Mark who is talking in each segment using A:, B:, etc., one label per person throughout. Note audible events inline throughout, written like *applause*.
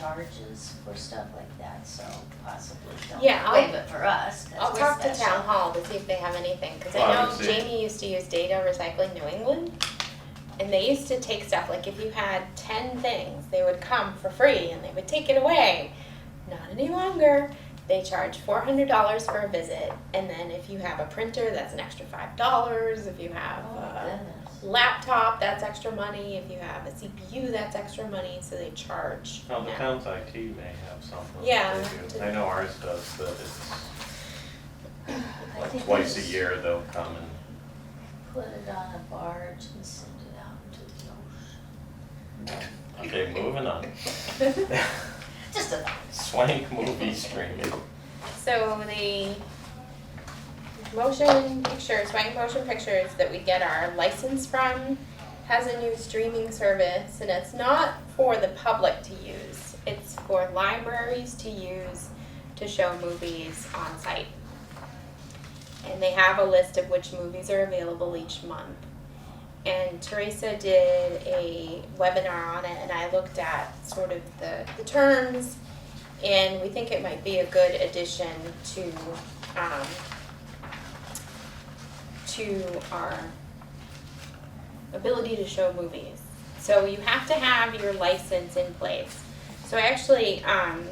A: charges for stuff like that, so possibly don't
B: Yeah, I'll-
A: waive it for us, 'cause
B: I'll
A: we're
B: talk to
A: special.
B: town hall to see if they have anything, cause
C: Well, I
B: I know
C: would say-
B: Jamie used to use Data Recycling New England. And they used to take stuff, like if you had ten things, they would come for free and they would take it away. Not any longer, they charge four hundred dollars for a visit, and then if you have a printer, that's an extra five dollars, if you have
A: Oh,
B: a
A: my
C: Uh,
A: goodness.
B: laptop, that's extra money, if you have a CPU, that's extra money, so they charge
C: Well, the
B: now.
C: town's IT may have something. that
B: Yeah.
C: they do. I know ours does, but it's
A: I
C: like
A: think
C: twice a
A: it's-
C: year they'll come and,
A: Put it on a barge and send it out to the ocean.
C: okay, moving on. *laughs*
B: *laughs*
A: Just a,
C: Swank movie streaming.
B: So the motion pictures, Wank Motion Pictures that we get our license from has a new streaming service and it's not for the public to use. It's for libraries to use to show movies on site. And they have a list of which movies are available each month. And Teresa did a webinar on it and I looked at sort of the, the terms and we think it might be a good addition to, um, to our ability to show movies. So you have to have your license in place. So actually, um,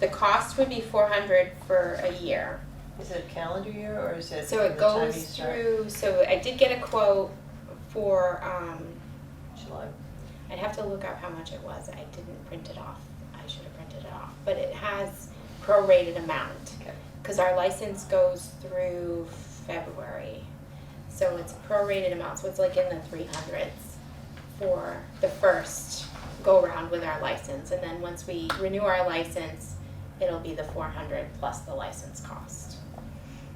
B: the cost would be four hundred for a year.
D: Is it calendar year or is it
B: So
D: from the
B: it
D: time you
B: goes
D: start?
B: through, so I did get a quote for, um,
D: July.
B: I'd have to look up how much it was. I didn't print it off. I should have printed it off. But it has prorated amount.
D: Okay.
B: Because our license goes through February. So it's prorated amount. So it's like in the 300s for the first go round with our license. And then once we renew our license, it'll be the 400 plus the license cost.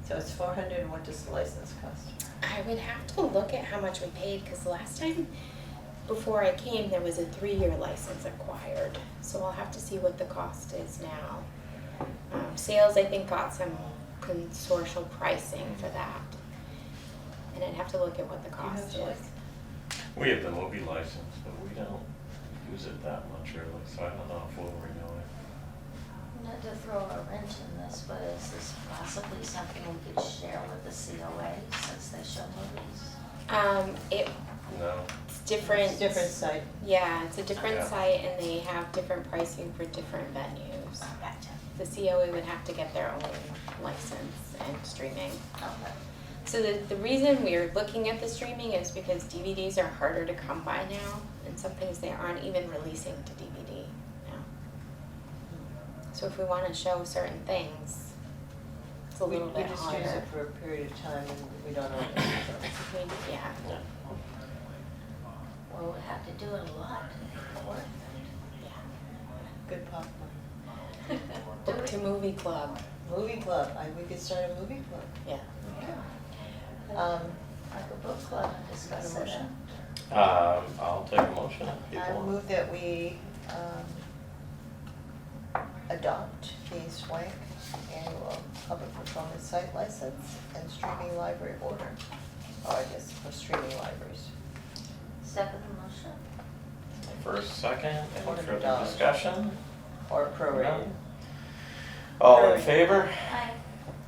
D: So it's four hundred and what does the license cost?
B: I would have to look at how much we paid because last time before I came, there was a three year license acquired. So I'll have to see what the cost is now. Um, sales, I think, got some consortial pricing for that. And I'd have to look at what the
D: Do you have
B: cost
D: the
B: is.
D: license?
C: We have the movie license, but we don't use it that much really, so I don't know if we'll renew it.
A: not to throw a wrench in this, but is this possibly something we could share with the COA since they show movies?
B: Um, it,
C: No,
B: it's different.
D: It's different site.
B: Yeah, it's a different
C: Yeah.
B: site and they have different pricing for different venues.
A: Gotcha.
B: The COA would have to get their own license and streaming.
A: Okay.
B: So the, the reason we're looking at the streaming is because DVDs are harder to come by now, and some things they aren't even releasing to DVD now. So if we want to show certain things, it's a
D: We-
B: little bit
D: We just use
B: harder.
D: it for a period of time and we don't know. what it is.
B: We- yeah.
C: no.
A: Well, we have to do it a lot to make it worth it.
D: Good popcorn.
B: Book to movie club.
D: Movie club, I, we could start a movie club.
B: Yeah.
D: Um,
A: Like a book club and discuss it.
D: Motion.
C: Um, I'll take a motion
D: I
C: if people want.
D: move that we, um, adopt the Swank annual public performance site license and streaming library order. Oh, I guess for streaming libraries.
A: Second motion?
C: First, second, any
D: Order
C: further
D: dollars.
C: discussion?
D: Or prorated.
C: None? All in
D: Prorated.
C: favor?
A: Aye.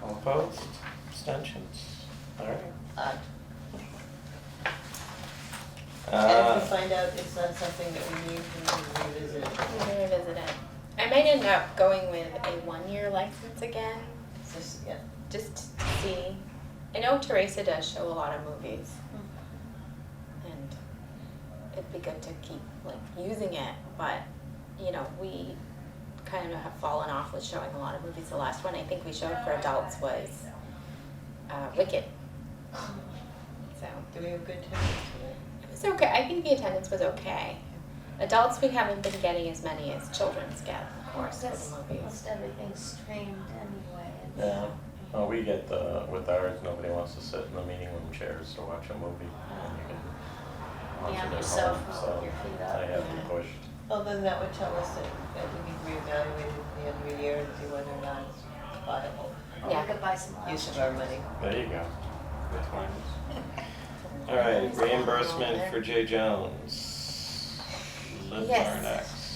C: All opposed? Abstentions? All right.
D: Aye. Uh, And if we
C: Uh,
D: find out it's not something that we need, we can revisit it.
B: I'm gonna revisit it. I might end up going with a one-year license again,
D: It's just, yeah,
B: just to see. I know Teresa does show a lot of movies, and it'd be good to keep like using it, but you know, we kind of have fallen off with showing a lot of movies. The last one I think we showed for adults was uh, Wicked. So
D: do we have good time?
B: it was okay. I think the attendance was okay. Adults, we haven't been getting as many as children's get, of course, for
A: That's-
B: the movies.
A: Most everything's streamed anyway. and-
C: yeah, well, we get the, with ours, nobody wants to sit in the meeting room chairs to watch a movie. and you can watch
A: Yeah,
C: it at
A: yourself,
C: home, so
A: your feet up.
C: I have to
B: Yeah.
C: push.
D: Well, then that would tell us that, that we need to reevaluate it at the end of the year and see whether or not it's viable
A: We could buy some
D: use
A: lunch.
D: of our money.
C: There you go. All right, reimbursement for Jay Jones. Liz
B: Yes.
C: Zarnak.